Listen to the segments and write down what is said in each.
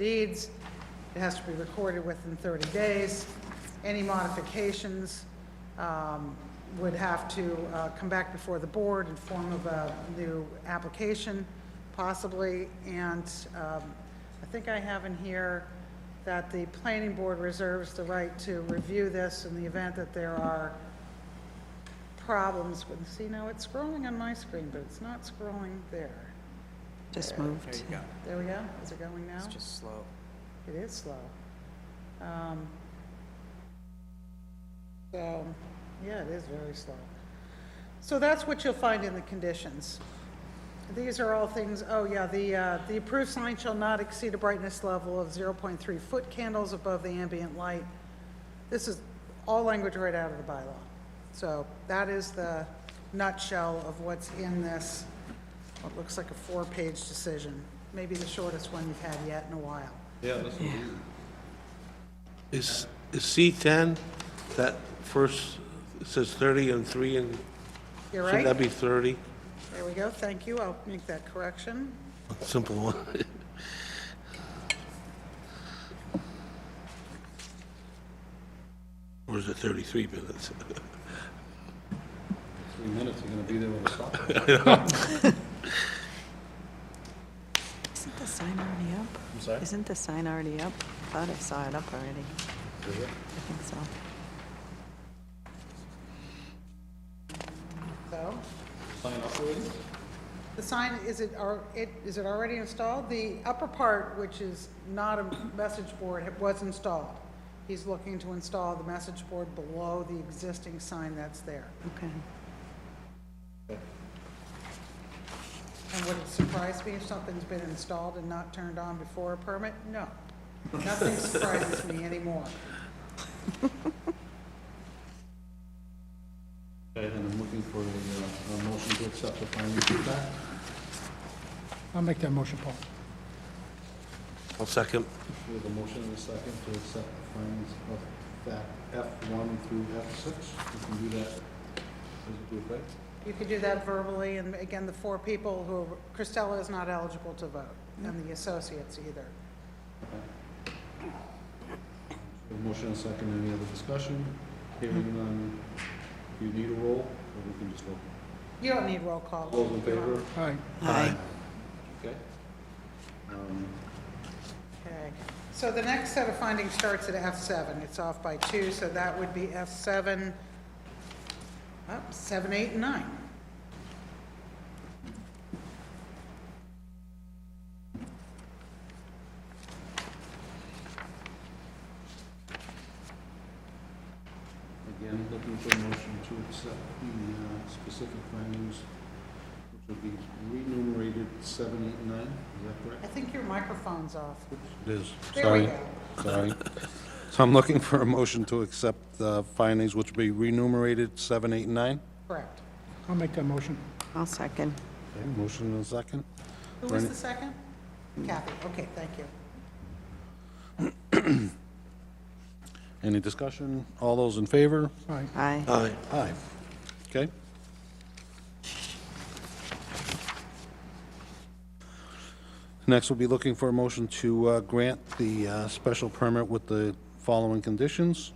deeds. It has to be recorded within 30 days. Any modifications um, would have to uh, come back before the board in form of a new application, possibly. And um, I think I have in here that the planning board reserves the right to review this in the event that there are problems with, see, now it's scrolling on my screen, but it's not scrolling there. Just moved. There you go. There we go, is it going now? It's just slow. It is slow. Um, So, yeah, it is very slow. So that's what you'll find in the conditions. These are all things, oh yeah, the, uh, the approved sign shall not exceed a brightness level of 0.3 foot candles above the ambient light. This is all language right out of the bylaw. So that is the nutshell of what's in this, what looks like a four-page decision, maybe the shortest one you've had yet in a while. Is, is C10, that first, it says 30 and 3 and, You're shouldn't that right. be 30? There we go. Thank you. I'll make that correction. Simple one. Or is it 33 minutes? Three minutes, you're gonna be there with a stop. Isn't the sign already up? I'm sorry? Isn't the sign already up? I Thought I saw it up already. I think so. So Sign up already? the sign, is it, al- it- is it already installed? The upper part, which is not a message board, it was installed. He's looking to install the message board below the existing sign that's there. Okay. And would it surprise me if something's been installed and not turned on before a permit? No. Nothing surprises me anymore. Okay, then I'm looking for a, uh, a motion to accept the findings of fact. I'll make that motion, Paul. I'll second. We have a motion and a second to accept the findings of fact F one through F six. We can do that. Does it do it right? You could do that verbally, and again, the four people who, Christella is not eligible to vote, and the associates either. We have a motion and a second. Any other discussion? Hearing none. Do you need a roll? Or we can just vote? You don't need roll call. All those in favor? Aye. Aye. Okay. Um, Okay, so the next set of findings starts at F7. It's off by two, so that would be F7, up, 7, 8, and 9. Again, looking for a motion to accept the uh, specific findings, which would be renumerated seven, eight, and nine, is that I correct? think your microphone's off. It is. There we go. sorry. So I'm looking for a motion to accept the findings, which would be renumerated seven, eight, and nine. Correct. I'll make that motion. I'll second. Okay, motion and a second. Who was Bernie. the second? Kathy, okay, thank you. Any discussion? All those in favor? Aye. Aye. Aye. Aye. Okay. Next, we'll be looking for a motion to uh, grant the uh, special permit with the following conditions,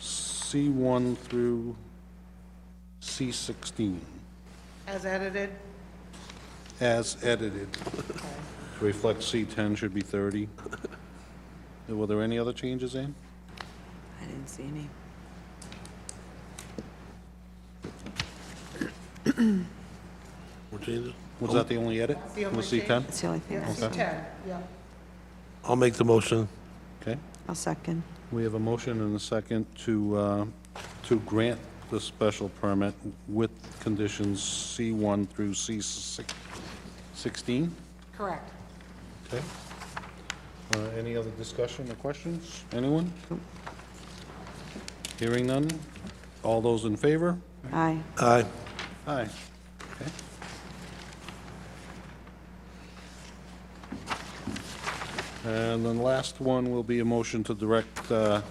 C1 through C16, As edited, as edited. okay. To Reflect C10 should be 30. Were there any other changes, Ann? I didn't see any. More changes? Was that the only edit? Oh. The only Was C10? That's the only thing I yeah, saw. C10, yeah. I'll make the motion. Okay. I'll second. We have a motion and a second to, uh, to grant the special permit with conditions C1 through C16. Correct. Okay. Uh, Any other discussion or questions? Anyone? Hearing none? All those in favor? Aye. Aye. Aye. Okay. And then the last one will be a motion to direct uh,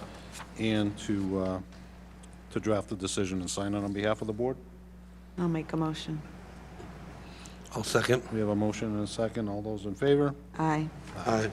Ann to, uh, to draft the decision and sign it on behalf of the board. I'll make a motion. I'll second. We have a motion and a second. All those in favor? Aye. Aye.